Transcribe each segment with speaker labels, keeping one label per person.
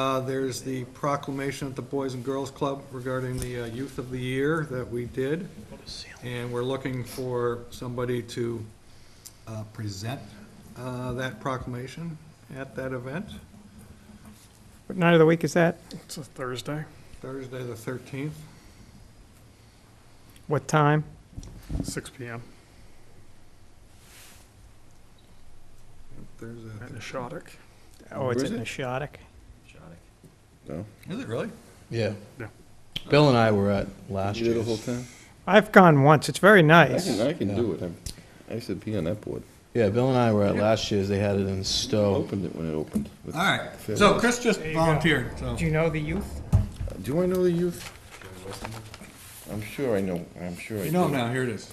Speaker 1: Uh, There's the proclamation at the Boys and Girls Club regarding the uh, Youth of the Year that we did. And we're looking for somebody to uh, present uh, that proclamation at that event,
Speaker 2: What night of the week is that?
Speaker 3: It's a Thursday.
Speaker 1: Thursday, the 13th.
Speaker 2: What time?
Speaker 3: 6 p.m.
Speaker 1: There's
Speaker 3: at
Speaker 1: a,
Speaker 3: Nishotic.
Speaker 2: Oh, it's
Speaker 4: Where
Speaker 2: at
Speaker 4: is
Speaker 2: Nishotic.
Speaker 1: is it really?
Speaker 5: Yeah.
Speaker 3: Yeah.
Speaker 5: Bill and I were at last
Speaker 4: You did the whole
Speaker 5: year's.
Speaker 4: time?
Speaker 2: I've gone once. It's very
Speaker 4: I
Speaker 2: nice.
Speaker 4: can, I can do it. I'm- I used to be on that board.
Speaker 5: Yeah, Bill and I were at last year's. They had it in Stowe.
Speaker 4: Opened it when it opened. With-
Speaker 1: All right, so Chris just volunteered, so.
Speaker 2: Do you know the youth?
Speaker 4: Do I know the youth? I'm sure I know, I'm sure I
Speaker 1: You know him
Speaker 4: do.
Speaker 1: now, here it is.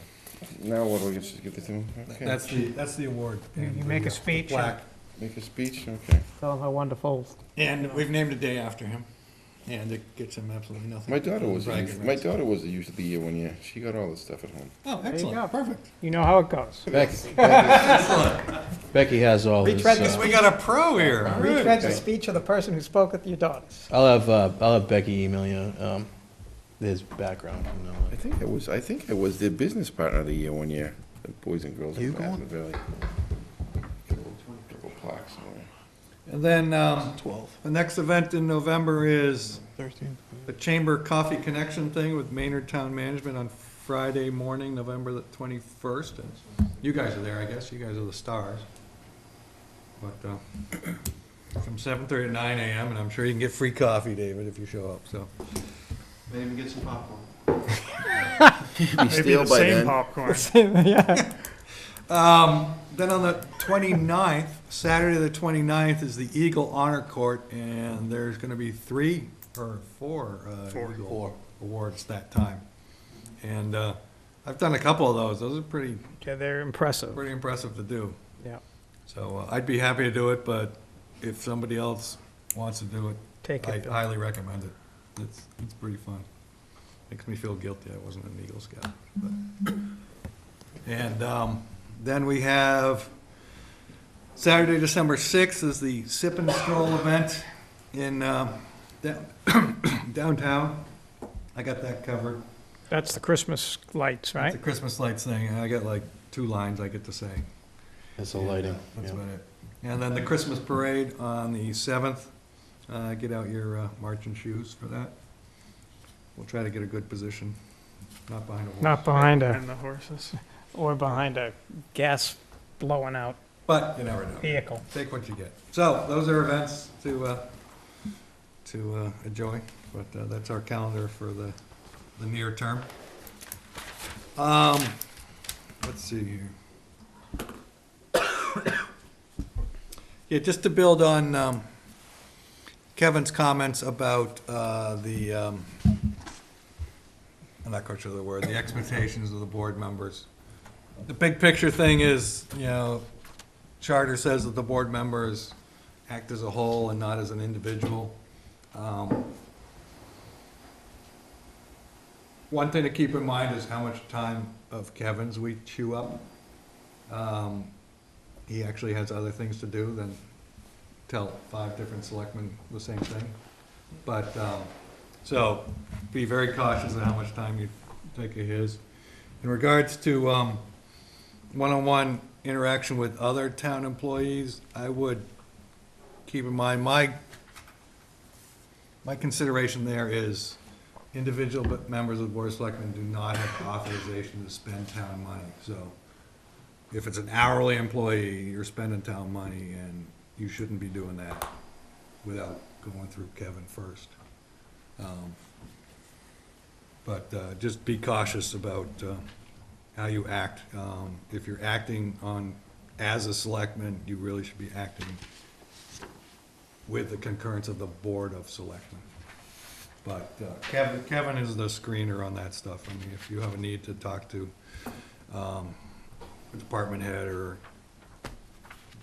Speaker 4: Now what, do we just give it to him? Okay.
Speaker 1: That's the, that's the award.
Speaker 2: You- you
Speaker 1: and the,
Speaker 2: make a
Speaker 1: uh,
Speaker 2: speech and-
Speaker 1: plaque.
Speaker 4: Make a speech? Okay.
Speaker 2: Tell them how wonderful.
Speaker 1: And we've named a day after him, and it gets him absolutely nothing.
Speaker 4: My daughter was, a
Speaker 1: Bragging
Speaker 4: youth- my
Speaker 1: rights.
Speaker 4: daughter was the youth of the year one year. She got all this stuff at home.
Speaker 1: Oh,
Speaker 2: you go.
Speaker 1: excellent, perfect.
Speaker 2: You know how it goes.
Speaker 5: Becky, Becky, Becky has all this.
Speaker 2: Retread this
Speaker 5: uh,
Speaker 1: We got a pro here. All right.
Speaker 2: Retread the speech of the person who spoke at your daughters.
Speaker 5: I'll have uh, I'll have Becky email you um, his background. From now
Speaker 4: I
Speaker 5: on.
Speaker 4: think I was, I think I was their business partner of the year one year, the Boys and Girls of
Speaker 5: You
Speaker 4: Madison Valley. Couple- couple plaques somewhere.
Speaker 1: And then, um, the next event in November is the Chamber Coffee Connection thing with Maynard Town Management on Friday morning, November the twenty-first. You guys are there, I guess, you guys are the stars. But, uh, from seven-thirty to nine AM, and I'm sure you can get free coffee, David, if you show up, so. Maybe even get some popcorn.
Speaker 3: Maybe the same popcorn.
Speaker 2: Yeah.
Speaker 1: Um, then on the 29th, Saturday the 29th is the Eagle Honor Court, and there's gonna be three or four, uh,
Speaker 3: Four.
Speaker 1: Eagle
Speaker 5: Four.
Speaker 1: awards that time. And, uh, I've done a couple of those. Those are pretty,
Speaker 2: Yeah, they're impressive.
Speaker 1: pretty impressive to do.
Speaker 2: Yeah.
Speaker 1: So uh, I'd be happy to do it, but if somebody else wants to do it,
Speaker 2: Take
Speaker 1: I
Speaker 2: it, Bill.
Speaker 1: highly recommend it. It's, it's pretty fun. Makes me feel guilty I wasn't an Eagle Scout. but- And um, then we have Saturday, December 6th is the Sip and Stroll event in um, down- downtown. I got that covered.
Speaker 2: That's the Christmas lights,
Speaker 1: It's a
Speaker 2: right?
Speaker 1: Christmas lights thing, and I got like two lines I get to say.
Speaker 5: It's the lighting.
Speaker 1: That's
Speaker 5: yeah.
Speaker 1: about it. And then the Christmas parade on the seventh, uh, get out your, uh, marching shoes for that. We'll try to get a good position, not behind a horse.
Speaker 2: Not behind a,
Speaker 3: And the horses.
Speaker 2: or behind a gas blowing out
Speaker 1: But you never know.
Speaker 2: vehicle.
Speaker 1: Take what you get. So those are events to, uh, to, uh, enjoy, but, uh, that's our calendar for the, the near term. Um, let's see here. Yeah, just to build on um, Kevin's comments about uh, the, um, I'm not quite sure of the word, the expectations of the board members. The big picture thing is, you know, charter says that the board members act as a whole and not as an individual. Um, One thing to keep in mind is how much time of Kevin's we chew up. Um, he actually has other things to do than tell five different selectmen the same thing. But, um, so be very cautious of how much time you take of his. In regards to, um, one-on-one interaction with other town employees, I would keep in mind, my, my consideration there is individual but members of the board of selectmen do not have authorization to spend town money, so if it's an hourly employee, you're spending town money, and you shouldn't be doing that without going through Kevin first. Um, But uh, just be cautious about uh, how you act. Um, If you're acting on, as a selectman, you really should be acting with the concurrence of the Board of Selectmen. But uh, Kevin, Kevin is the screener on that stuff. I mean, if you have a need to talk to um, a department head or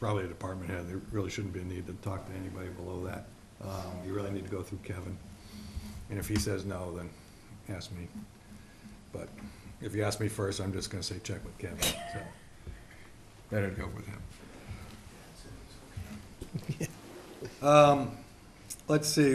Speaker 1: probably a department head, there really shouldn't be a need to talk to anybody below that. Um, You really need to go through Kevin. And if he says no, then ask me. But if you ask me first, I'm just gonna say check with Kevin, so better to go with him. Um, let's see,